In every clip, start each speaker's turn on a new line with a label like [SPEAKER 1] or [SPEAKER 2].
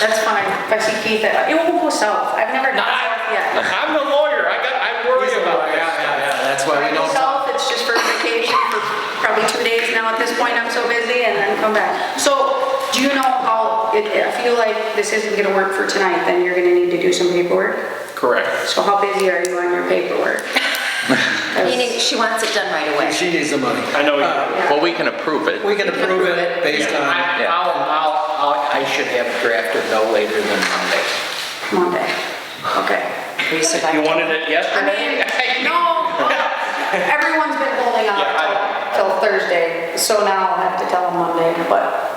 [SPEAKER 1] That's fine. If I see Keith, I- it will go south. I've never
[SPEAKER 2] No,
[SPEAKER 1] gone south yet.
[SPEAKER 2] I- I'm the lawyer, I got, I worry
[SPEAKER 3] He's a
[SPEAKER 2] about
[SPEAKER 3] lawyer,
[SPEAKER 2] that.
[SPEAKER 3] yeah, yeah, that's why
[SPEAKER 1] I
[SPEAKER 3] we
[SPEAKER 1] go
[SPEAKER 3] don't.
[SPEAKER 1] south, it's just for vacation for probably two days now at this point. I'm so busy and then come back. So do you know how, if if you like this isn't gonna work for tonight, then you're gonna need to do some paperwork?
[SPEAKER 2] Correct.
[SPEAKER 1] So how busy are you on your paperwork?
[SPEAKER 4] Meaning she wants it done right away.
[SPEAKER 3] She needs the money.
[SPEAKER 2] I
[SPEAKER 5] Uh,
[SPEAKER 2] know you do.
[SPEAKER 1] Yeah.
[SPEAKER 6] Well, we can approve it.
[SPEAKER 3] We can approve it based
[SPEAKER 5] Yeah,
[SPEAKER 3] on,
[SPEAKER 5] I- I'll, I'll, I'll- I should have drafted no later than Monday.
[SPEAKER 1] Monday. Okay.
[SPEAKER 4] We survived.
[SPEAKER 2] You wanted it
[SPEAKER 1] I
[SPEAKER 2] yesterday?
[SPEAKER 1] mean, no, everyone's been holding on
[SPEAKER 2] Yeah, I-
[SPEAKER 1] till till Thursday, so now I'll have to tell them Monday, but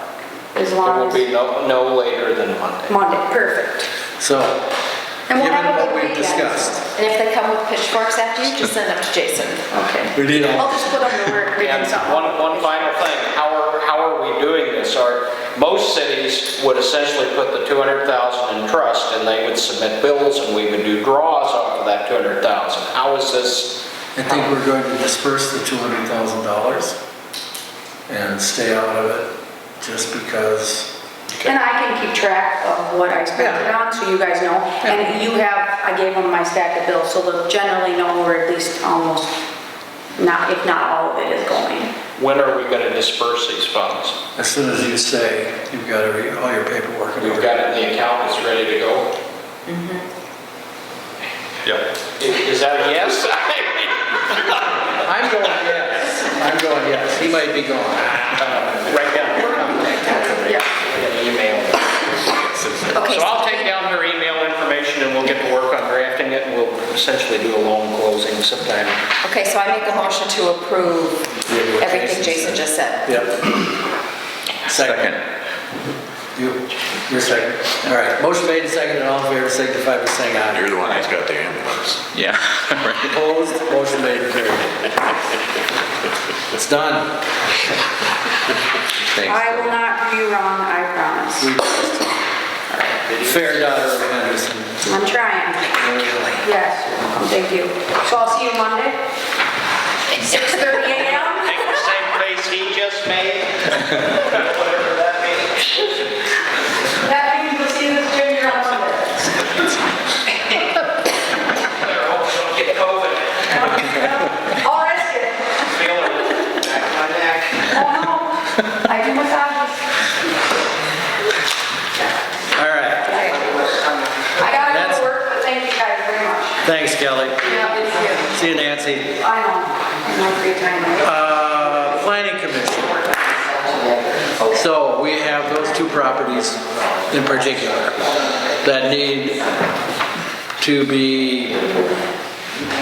[SPEAKER 1] as
[SPEAKER 5] It
[SPEAKER 1] long
[SPEAKER 5] will
[SPEAKER 1] as,
[SPEAKER 5] be no, no later than Monday.
[SPEAKER 1] Monday, perfect.
[SPEAKER 3] so,
[SPEAKER 1] And we'll
[SPEAKER 3] given
[SPEAKER 1] have a
[SPEAKER 3] what
[SPEAKER 1] good
[SPEAKER 3] we've
[SPEAKER 1] weekend.
[SPEAKER 3] discussed,
[SPEAKER 4] And if they come with pitchforks after you, just send them to Jason.
[SPEAKER 1] Okay.
[SPEAKER 3] we need
[SPEAKER 1] I'll
[SPEAKER 3] all,
[SPEAKER 1] just put them to work, they did
[SPEAKER 5] And
[SPEAKER 1] something.
[SPEAKER 5] one, one final thing, how are, how are we doing this? Are, most cities would essentially put the 200,000 in trust and they would submit bills and we would do draws off of that 200,000. How is this,
[SPEAKER 3] I think we're going to disperse the two hundred thousand dollars and stay out of it just because,
[SPEAKER 1] And I can keep track of what I spent it on, so you guys know. And you have, I gave them my stack of bills, so they'll generally know where at least almost, not, if not all of it is going.
[SPEAKER 5] when are we going to disperse these funds?
[SPEAKER 3] as soon as you say, you've got every- all your paperwork. in
[SPEAKER 5] We've
[SPEAKER 3] order.
[SPEAKER 5] got it in the account, it's ready to go? Mm-hmm.
[SPEAKER 6] Yeah.
[SPEAKER 5] Is is that a yes?
[SPEAKER 3] I'm going yes, I'm going yes, he might be gone.
[SPEAKER 5] Right down.
[SPEAKER 1] Yeah.
[SPEAKER 5] Email.
[SPEAKER 4] Okay,
[SPEAKER 5] So
[SPEAKER 4] so
[SPEAKER 5] I'll take down her email information and we'll get to work on drafting it and we'll essentially do a loan closing sometime.
[SPEAKER 4] Okay, so I make a motion to approve everything Jason just said.
[SPEAKER 3] Yep.
[SPEAKER 6] Second.
[SPEAKER 3] You, you're second. All right, motion made and seconded, all in favor, signify by saying aye.
[SPEAKER 7] You're the one that's got the ambulance.
[SPEAKER 6] Yeah. right.
[SPEAKER 3] Opposed, motion made and carried. It's done.
[SPEAKER 6] Thanks.
[SPEAKER 1] I will not do you wrong, I promise.
[SPEAKER 3] Fair daughter of Henderson.
[SPEAKER 1] I'm trying. Yes, thank you. So I'll see you Monday, 6:30 AM.
[SPEAKER 5] Make the same face he just made. Whatever that means.
[SPEAKER 1] That means you'll see this junior on Monday.
[SPEAKER 5] Better hope I don't get COVID.
[SPEAKER 1] I'll risk it.
[SPEAKER 5] Feeling it back of my neck.
[SPEAKER 1] Oh, no. I do massages.
[SPEAKER 3] All right,
[SPEAKER 1] I gotta go to work, but thank you guys very much.
[SPEAKER 3] thanks, Kelly.
[SPEAKER 1] Yeah, thank
[SPEAKER 3] See you, Nancy.
[SPEAKER 1] you. I know, I'm not free time.
[SPEAKER 3] Uh, Planning Commission. So we have those two properties in particular that need to be,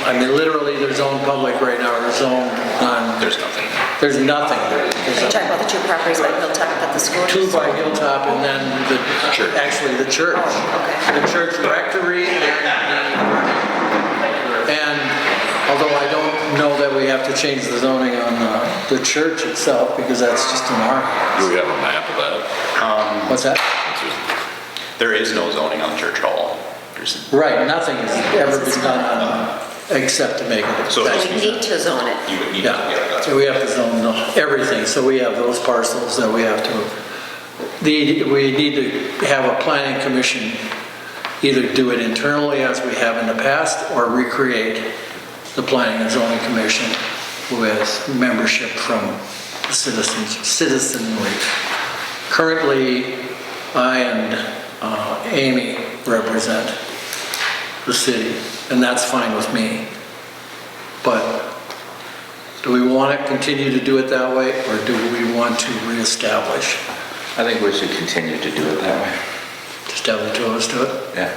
[SPEAKER 3] I mean, literally, they're zoned public right now, they're zoned on,
[SPEAKER 6] There's nothing.
[SPEAKER 3] there's nothing. There's
[SPEAKER 4] Are you talking about the two properties by Hilltop at the school?
[SPEAKER 3] two by Hilltop and then the, actually the church.
[SPEAKER 4] Oh, okay.
[SPEAKER 3] The church rectory and, the- and although I don't know that we have to change the zoning on uh, the church itself because that's just an R.
[SPEAKER 7] Do we have a map of that?
[SPEAKER 3] What's that?
[SPEAKER 6] There is no zoning on Church Hall. There's-
[SPEAKER 3] Right, nothing has ever been done on, except to make it.
[SPEAKER 6] So
[SPEAKER 4] We need to zone it.
[SPEAKER 6] You would need, yeah,
[SPEAKER 3] Yeah,
[SPEAKER 6] that's
[SPEAKER 3] so we have to zone the- everything, so we have those parcels that we have to, the, we need to have a planning commission either do it internally as we have in the past, or recreate the planning and zoning commission with membership from the citizens, citizenry. Currently, I and uh, Amy represent the city, and that's fine with me. But do we want to continue to do it that way, or do we want to reestablish?
[SPEAKER 6] I think we should continue to do it that way.
[SPEAKER 3] Just have the two of us do it?
[SPEAKER 6] Yeah.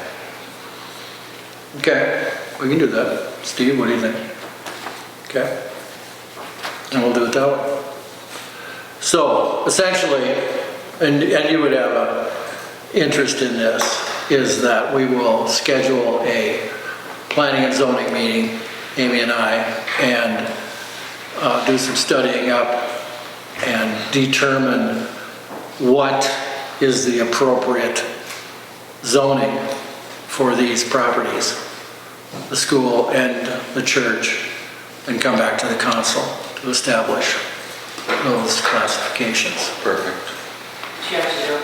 [SPEAKER 3] Okay, we can do that. Steve, what do you think? Okay? And we'll do it that way. So essentially, and, and you would have a interest in this, is that we will schedule a planning and zoning meeting, Amy and I, and uh, do some studying up and determine what is the appropriate zoning for these properties, the school and the church, and come back to the council to establish those classifications.
[SPEAKER 6] Perfect.